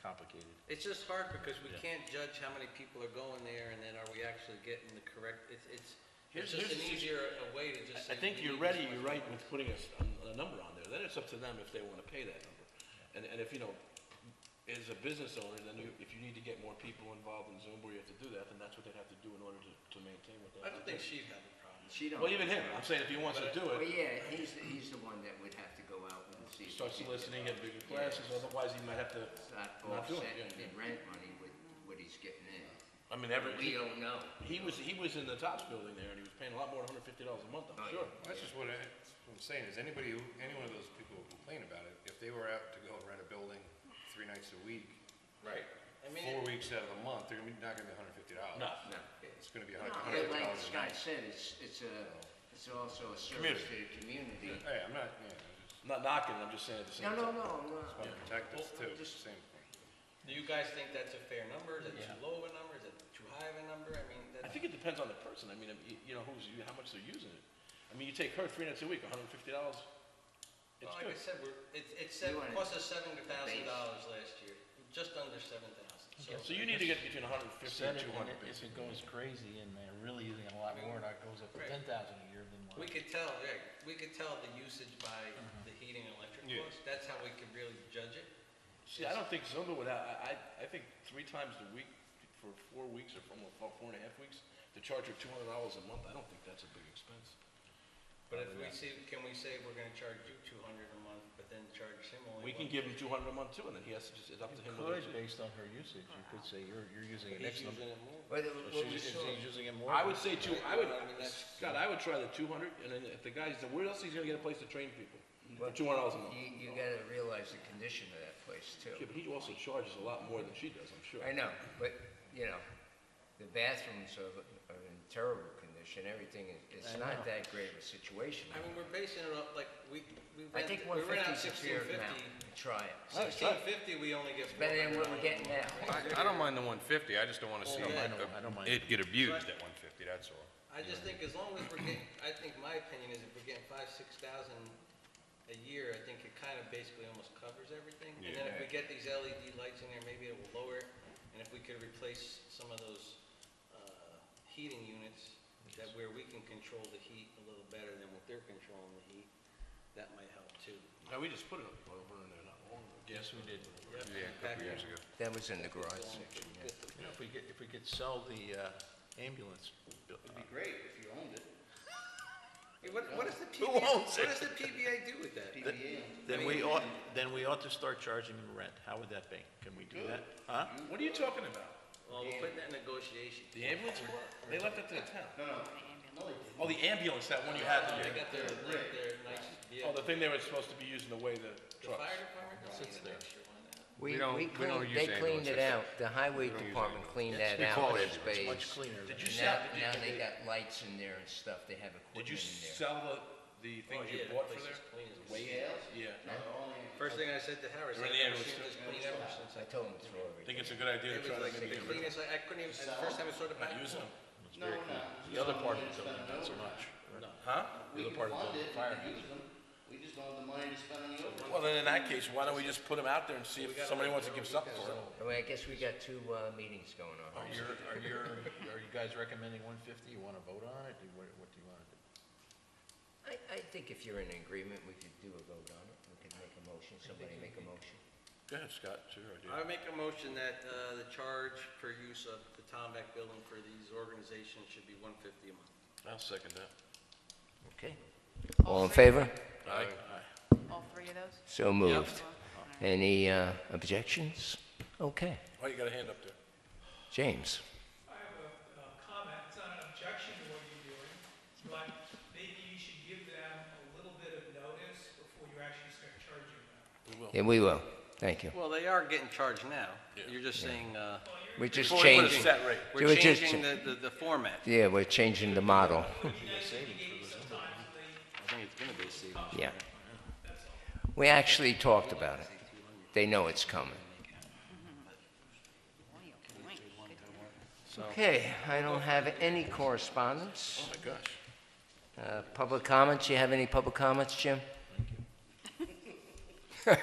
complicated. It's just hard because we Yeah. can't judge how many people are going there and then are we actually getting the correct, it's, it's, Here's- it's just here's- an easier uh, way to just say. I think we you're need ready, this much you're right money. with putting a, s- a- a number on there, then it's up to them if they wanna pay that number. And, and if, you know, as a business owner, then you, if you need to get more people involved in Zoom, where you have to do that, then that's what they'd have to do in order to, to maintain what they I have don't to think do. she'd have a problem. She don't. Well, even him, I'm saying if he wants to do Well, it, yeah, he's, he's the one that would have to go out and see. if he start can- soliciting, get bigger classes, Yeah. otherwise he might have to It's Not not do it. offsetting yeah, the yeah. rent money with what he's getting in. I mean, every, he- We don't know. he was, he was in the Tops building there, and he was paying a lot more than hundred fifty dollars a month, Oh, I'm sure. yeah. That's just what I- that's what I'm saying, is anybody, who any one of those people who complain about it, if they were out to go rent a building three nights a week, Right. I four mean, weeks out of the month, they're gonna be- not gonna be hundred fifty dollars. No. No. It's gonna be a hundred Yeah, fifty like dollars a Scott night. said, it's, it's a, it's also a service to Community. the community. Hey, I'm not, yeah, I'm just I'm Not knocking, I'm just saying at the same No, time. no, no, no. about protective Well, I'm too, just- same thing. do you guys think that's a fair number? Is it Yeah. too low of a number? Is it too high of a number? I mean, I that's, think it depends on the person. I mean, you- you know, who's, how much they're using it. I mean, you take her three nights a week, hundred and fifty dollars. well, It's like I good. said, we're, it's, it's, You seven- wanna- cost us seven thousand dollars last year, just under seven thousand. So you need to get between hundred and fifty Said it, and two and hundred. it- if it goes crazy and they're really using a lot more, and it goes up to Right. ten thousand a year, then We what? could tell, yeah, we could tell the usage by Mm-hmm. the heating and electric Yeah. costs. That's how we could really judge it. See, I don't think Zumba would, have- I, I, I think three times a week for four weeks or for almost four four and a half weeks, to charge her two hundred dollars a month, I don't think that's a big expense. But if we see, can we say we're gonna charge you two hundred a month, but then charge him only? We one- can give him two hundred a month too, and then he has to just, it's up to You him whether. could, based on her usage, you could say you're, you're using an He's X using number. it more. But it- If what we she's if saw, she's using it more. I would say two, I would, I mean, that's- Scott, I would try the two hundred, and then if the guy's, where else he's gonna get a place to train people? For But- two hundred dollars a month. you, you gotta realize the condition of that place Yeah, but too. he also charges a lot more than she does, I'm sure. I know, but, you know, the bathrooms are, are in terrible condition, everything is, I it's know. not that great of a situation. I mean, we're basing it off, like, we, we I think rent, we one rent out fifty's a sixteen fair fifty. amount, We try it. That's Sixteen Oh, tough. fifty, we only get. Better than what we're getting $400. now. I, I don't mind the one fifty, I just don't wanna see Well, I don't- I don't mind. it get abused at one fifty, that's all. I just think as long as we're getting, I think my opinion is if we're getting five, six thousand a year, I think it kind of basically almost covers everything. And then if we get Yeah. these LED lights in there, maybe it will lower it. And if we could replace some of those, uh, heating units that where we can control the heat a little better than what they're controlling the heat, that might help too. No, we just put it up over in there not long ago. Yes, we did. Yeah, a couple years ago. That was in the garage section, yeah. You know, if we get, if we could sell the uh, ambulance. uh, bill- It'd be great if you owned it. Hey, What, what does the Who PBA, what owns it? does the PBA do with that? PBA. Then we ought, then we ought to start charging them rent. How would that be? Can we do that? Huh? What are you talking about? Well, we're putting that in negotiation. The ambulance? one? They left that to the town. No, no, no, they didn't. Oh, the ambulance, that one you had They to got their, like, their nice vehicle. Oh, the thing they were supposed to be using to weigh the The trucks. fire department don't Sits need an there. extra one. We don't- we cleaned- don't use They cleaned it out, ambulances. the highway We don't use department cleaned that We out, call the it ambulance. space. Much cleaner. than- Did you sell, Now, now they did you, got lights in there and stuff, they have did equipment you in there. sell the, the things Oh, you yeah, that bought for place there? is clean as Weigh it? Scales? Yeah. No, they're only- First thing I said to Harris, I've We're in the never ambulance seen too. this clean ever since I. I told them to throw Think everything. it's a good idea It to was try like to the make it cleanest, I I couldn't even, the first time I saw the back. not use them? No, we're not. The other part of We the don't spend building, not so it much. Huh? We The can other part of fund the it, we fire can use them, we just don't have the money to spend on the overtime. Well, then in that case, why don't we just put them out there and see if somebody wants to give something for it? Well, I guess we got two, uh, meetings going Oh, Are on. you, are you, are you guys recommending one fifty? You want to vote on it? Do you- What, what do you want to do? I, I think if you're in agreement, we could do a vote on it, we could make a motion, somebody make a motion. Go ahead, Scott, it's your idea. I make a motion that uh, the charge for use of the Tomback building for these organizations should be 150 a month. I'll second that. Okay. All in favor? Aye. All three of those? So moved. All right. Any, uh, objections? Okay, Oh, you got a hand up there. James. I have a uh, comment, it's not an objection to what you're doing, but maybe you should give them a little bit of notice before you actually start charging them. Yeah, we will, thank you. Well, they are getting charged now. Yeah. You're just saying, uh, We're just Before we put a changing, set rate. They were we're just- changing the- the the format. yeah, we're changing the model, I think it's going to be a savings. yeah. We actually talked about it. They know it's coming. Boy, oh boy. Good to know. Okay, I don't have any correspondence. Oh, my gosh. Uh, Public comments, you have any public comments, Jim?